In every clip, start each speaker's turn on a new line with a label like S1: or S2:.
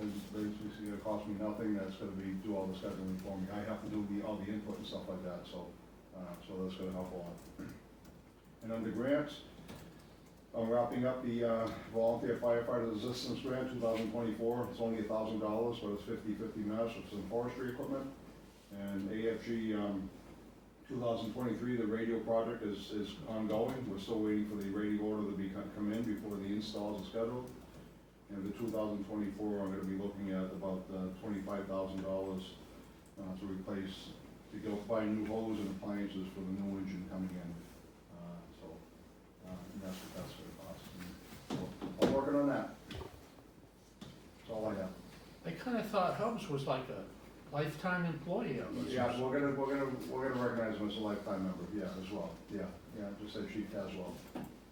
S1: is basically gonna cost me nothing, that's gonna be, do all the scheduling for me. I have to do the, all the input and stuff like that, so, uh, so that's gonna help a lot. And under grants, I'm wrapping up the uh, volunteer firefighter assistance grant, two thousand twenty-four. It's only a thousand dollars, but it's 50-50 match with some forestry equipment. And AFG, um, two thousand twenty-three, the radio project is, is ongoing. We're still waiting for the radio order to be, come in before the installs are scheduled. And the two thousand twenty-four, I'm gonna be looking at about uh, twenty-five thousand dollars uh, to replace, to go buy new hose and appliances for the new engine coming in. Uh, So, uh, and that's what that's gonna cost. And so I'm working on that. That's all I have.
S2: I kinda thought Hubs was like a lifetime employee of us.
S1: Yeah, we're gonna, we're gonna, we're gonna recognize him as a lifetime member, yeah, as well, yeah, yeah, just as chief as well.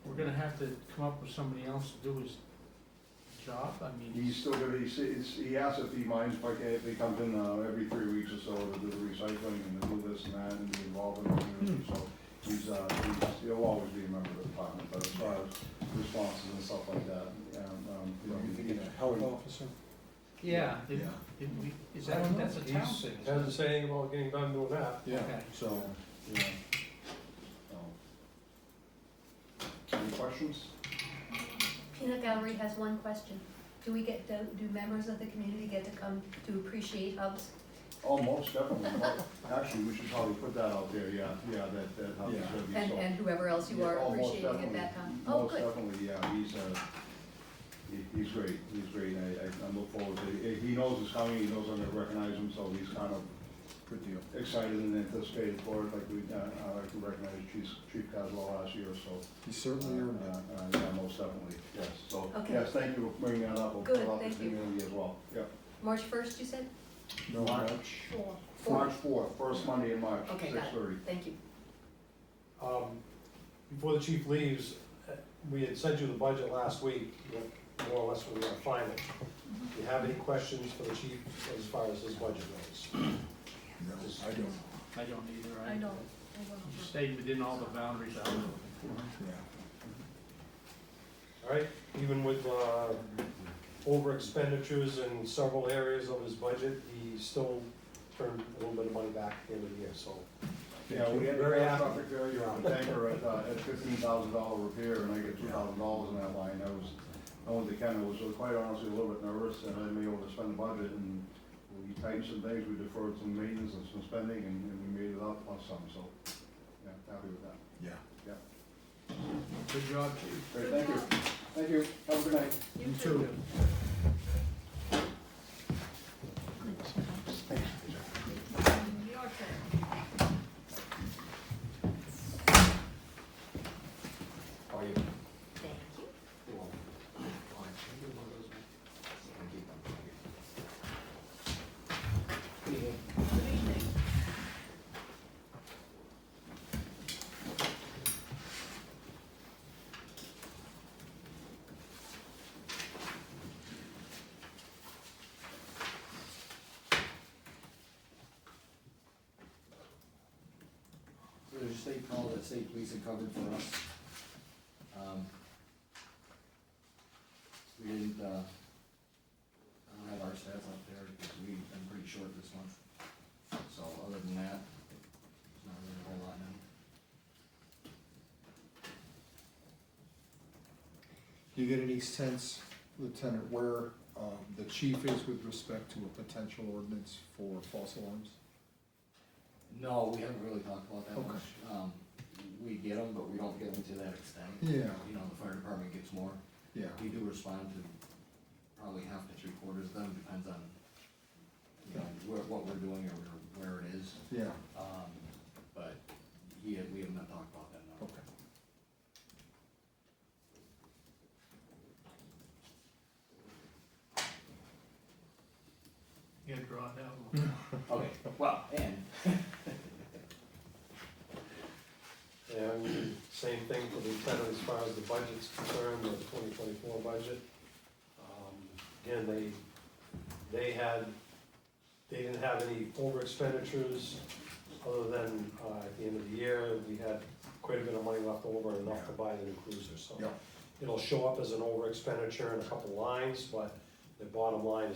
S2: We're gonna have to come up with somebody else to do his job, I mean,
S1: He's still gonna, he's, he's- he asked if he minds if I can, if he comes in, uh, every three weeks or so to do the recycling and to do this and that and be involved in the community, so he's, uh, he's, he'll always be a member of the department, but as far as responses and stuff like that, um, um, you know.
S3: You think it's a health officer?
S2: yeah, did,
S3: Yeah.
S2: did we, is that, that's a town
S3: He's-
S2: thing? isn't
S4: Doesn't
S2: it?
S4: say anything about getting done doing that.
S3: Yeah,
S2: Okay.
S3: so,
S1: Yeah. So. Any questions?
S5: Peanut Gallery has one question. Do we get, do do members of the community get to come to appreciate Hubs?
S1: Oh, most definitely. Actually, we should probably put that out there, yeah, yeah, that, that Hubby's gonna be so.
S5: And, and whoever else you are
S1: Yeah, oh, most
S5: appreciating at that
S1: definitely.
S5: time? Oh,
S1: Most
S5: good.
S1: definitely, yeah, he's, uh, he- he's great, he's great, I, I I look forward to it. He knows it's coming, he knows I'm gonna recognize him, so he's kind of
S3: good deal.
S1: excited and anticipated for it, like we, uh, I like to recognize Chief, Chief Caswell last year, so.
S3: He certainly earned
S1: Uh,
S3: that.
S1: uh, Yeah, most definitely, yes, so,
S5: Okay.
S1: yes, thank you for bringing that up. We'll put
S5: Good,
S1: it out to the
S5: thank you.
S1: community as well, yeah.
S5: March 1st, you said?
S3: No,
S1: March,
S5: Four.
S1: March
S5: Four.
S1: fourth, first Monday in March,
S5: Okay,
S1: six
S5: got
S1: thirty.
S5: it. Thank you.
S4: Um, Before the chief leaves, uh, we had sent you the budget last week, what- more or less we were gonna find it. Do you have any questions for the chief as far as his budget goes?
S3: no, I don't,
S2: I don't either, I.
S6: I don't, I don't.
S2: You stayed within all the boundaries I was looking for.
S3: yeah.
S4: All right, even with uh, over expenditures in several areas of his budget, he still turned a little bit of money back at the end of the year, so.
S1: Yeah, we had a
S4: Very
S1: gas
S4: happy.
S1: traffic failure on tanker at, uh, at fifteen thousand dollar repair, and I get two thousand dollars in that line, I was, I went to Ken, I was quite honestly a little bit nervous, and I may overspend the budget, and we tightened some things, we deferred some maintenance and some spending, and, and we made it up plus some, so, yeah, happy with that,
S3: Yeah.
S1: yeah.
S2: Good job, chief.
S1: Great, thank you, thank you, have a good night.
S6: You too. Your turn.
S4: Are you?
S5: Thank you.
S6: Good evening.
S7: There's a state call that state police had covered for us. Um, We didn't, uh, I don't have our stats up there because we've been pretty short this month. So other than that, there's not really a whole lot now.
S3: Do you get any sense, Lieutenant, where um, the chief is with respect to a potential ordinance for false alarms?
S7: No, we haven't really talked about that
S3: Okay.
S7: much. Um, We get them, but we don't get them to that extent.
S3: Yeah.
S7: You know, the fire department gets more.
S3: Yeah,
S7: We do respond to probably half to three quarters of them, depends on, you know, where, what we're doing or where it is.
S3: yeah,
S7: Um, but he had, we have not talked about that, no.
S3: okay.
S2: You gotta draw it out a little.
S7: Okay, well, and,
S4: And same thing for the lieutenant as far as the budget's concerned, the twenty twenty-four budget. Um, Again, they, they had, they didn't have any over expenditures other than, uh, at the end of the year, we had quite a bit of money left over enough to buy the new cruiser, so.
S3: Yeah.
S4: It'll show up as an over expenditure in a couple lines, but the bottom line is